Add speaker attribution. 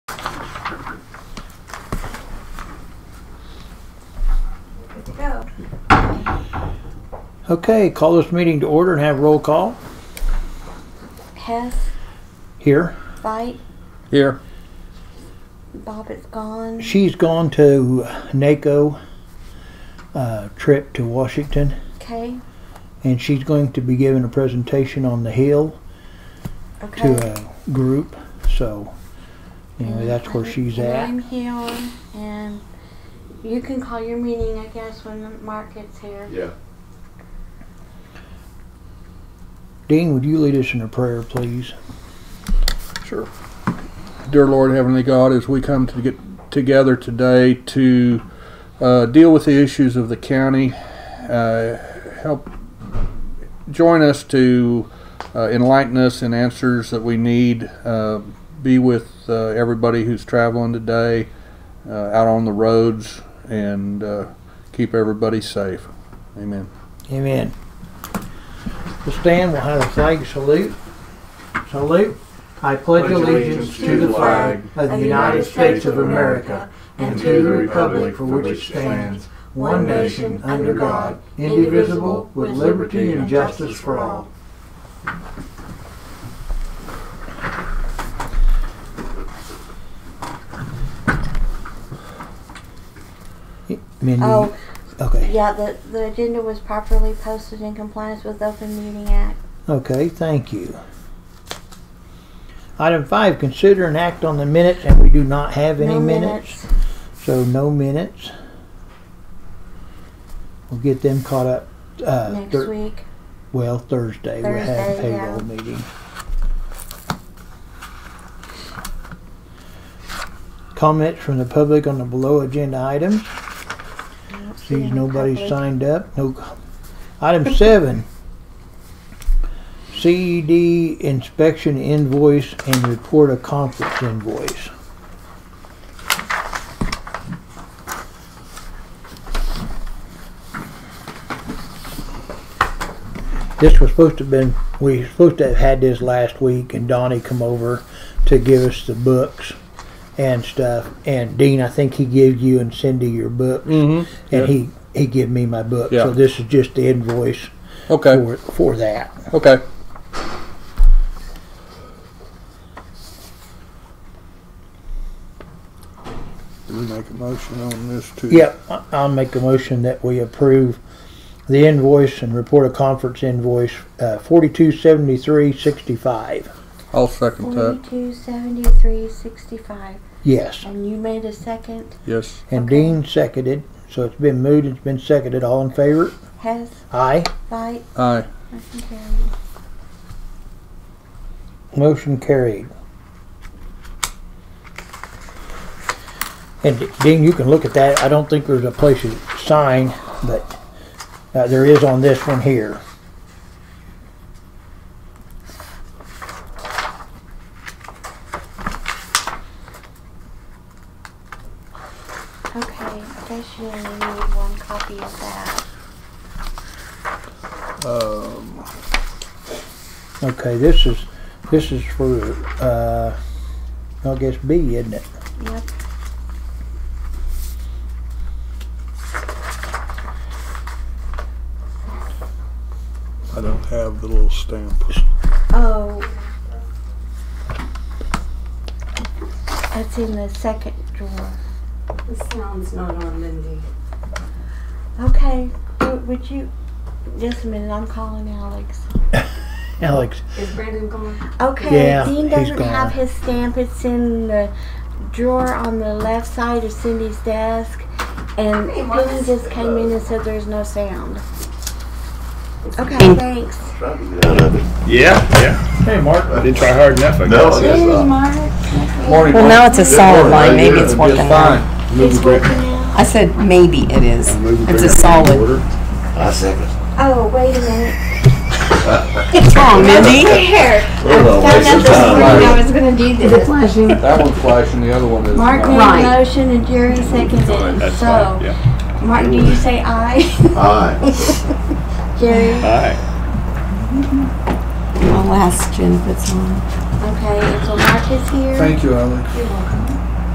Speaker 1: Okay, call this meeting to order and have roll call.
Speaker 2: Hess,
Speaker 1: Here,
Speaker 2: Fight,
Speaker 3: Here.
Speaker 2: Bob is gone.
Speaker 1: she's gone to NACO uh, trip to Washington,
Speaker 2: Okay,
Speaker 1: and she's going to be giving a presentation on the Hill
Speaker 2: okay.
Speaker 1: to uh, a group. So, anyway, that's where she's
Speaker 2: And
Speaker 1: at.
Speaker 2: I'm here, and you can call your meeting, I guess, when Mark gets here.
Speaker 3: Yeah.
Speaker 1: Dean, would you lead us in a prayer, please?
Speaker 3: Sure. Dear Lord, Heavenly God, as we come to get together today to uh, deal with the issues of the county, uh, help join us to uh, enlighten us in answers that we need. Uh, be with uh, everybody who's traveling today uh, out on the roads and uh, keep everybody safe. Amen.
Speaker 1: Amen. We'll stand, we'll have a flag salute. Salute. I pledge allegiance to the flag of the United States of America and to the republic for which it stands, one nation, under God, indivisible, with liberty and justice for all. Mindy,
Speaker 2: Oh,
Speaker 1: okay,
Speaker 2: yeah, the, the agenda was properly posted in compliance with Open Meeting Act.
Speaker 1: okay, thank you. Item five, consider an act on the minutes, and we do not have any
Speaker 2: No
Speaker 1: minutes. So no minutes. We'll get them caught up. Uh,
Speaker 2: Next
Speaker 1: thir-
Speaker 2: week.
Speaker 1: Well, Thursday, we'll have a
Speaker 2: Thursday, yeah.
Speaker 1: payroll meeting. Comments from the public on the below agenda items.
Speaker 2: I don't see
Speaker 1: Sees
Speaker 2: any
Speaker 1: nobody
Speaker 2: public.
Speaker 1: signed up. No. co- Item seven. CED inspection invoice and report of conference invoice. This was supposed to have been, we were supposed to have had this last week and Donnie come over to give us the books and stuff. And Dean, I think he gave you and Cindy your books.
Speaker 3: Mm-hmm.
Speaker 1: And he, he gave me my book.
Speaker 3: Yeah.
Speaker 1: So this is just the invoice
Speaker 3: Okay.
Speaker 1: for, for that.
Speaker 3: Okay. Did we make a motion on this too?
Speaker 1: Yep, I- I'll make a motion that we approve the invoice and report a conference invoice, uh, forty-two seventy-three sixty-five.
Speaker 3: I'll second that.
Speaker 2: Forty-two, seventy-three, sixty-five.
Speaker 1: Yes,
Speaker 2: And you made a second.
Speaker 3: Yes.
Speaker 1: and
Speaker 2: Okay.
Speaker 1: Dean seconded, so it's been moved, it's been seconded, all in favor?
Speaker 2: Hess,
Speaker 1: Aye.
Speaker 2: Fight,
Speaker 3: Aye.
Speaker 2: motion carried.
Speaker 1: Motion carried. And Dean, you can look at that. I don't think there's a place to sign, but uh, there is on this one here.
Speaker 2: Okay, I guess you only need one copy of that.
Speaker 3: Um,
Speaker 1: Okay, this is, this is for, uh, I guess B, isn't it?
Speaker 2: Yep.
Speaker 4: I don't have the little stamp.
Speaker 2: Oh. That's in the second drawer.
Speaker 5: The sound's not on Mindy.
Speaker 2: Okay, w- would you, just a minute, I'm calling Alex.
Speaker 1: Alex,
Speaker 5: Is Brandon gone?
Speaker 2: Okay,
Speaker 1: Yeah,
Speaker 2: Dean
Speaker 1: he's
Speaker 2: doesn't have
Speaker 1: gone.
Speaker 2: his stamp. It's in the drawer on the left side of Cindy's desk. And
Speaker 5: Hey,
Speaker 2: Penny
Speaker 5: Marcus.
Speaker 2: just came in and said there's no sound. Okay, thanks.
Speaker 6: Yeah, yeah.
Speaker 1: hey, Mark.
Speaker 6: I didn't try hard enough, I
Speaker 7: No,
Speaker 6: guess.
Speaker 7: yes,
Speaker 2: Hey,
Speaker 7: uh,
Speaker 2: Mark.
Speaker 3: morning.
Speaker 8: Well, now it's a solid line, maybe it's
Speaker 6: It's
Speaker 8: working out.
Speaker 3: Fine.
Speaker 6: Move the break.
Speaker 8: I said maybe it is.
Speaker 6: Move the
Speaker 8: It's
Speaker 6: break out
Speaker 8: a
Speaker 6: of
Speaker 8: solid.
Speaker 6: order.
Speaker 7: I second.
Speaker 2: Oh, wait a minute.
Speaker 8: What's wrong, Mindy?
Speaker 2: Here.
Speaker 7: Well,
Speaker 2: Found out
Speaker 7: waste of
Speaker 2: this
Speaker 7: time.
Speaker 2: morning I was gonna do this.
Speaker 3: That one's flashing, the other one is
Speaker 2: Mark made
Speaker 3: not.
Speaker 2: a
Speaker 8: Right.
Speaker 2: motion and Jerry seconded it.
Speaker 6: That's fine,
Speaker 2: So,
Speaker 6: yeah.
Speaker 2: Mark, do you say aye?
Speaker 7: Aye.
Speaker 2: Jerry?
Speaker 6: Aye.
Speaker 8: I'll ask Jen if it's on.
Speaker 2: Okay, and so Mark is here.
Speaker 3: Thank you, Alex.
Speaker 5: You're welcome.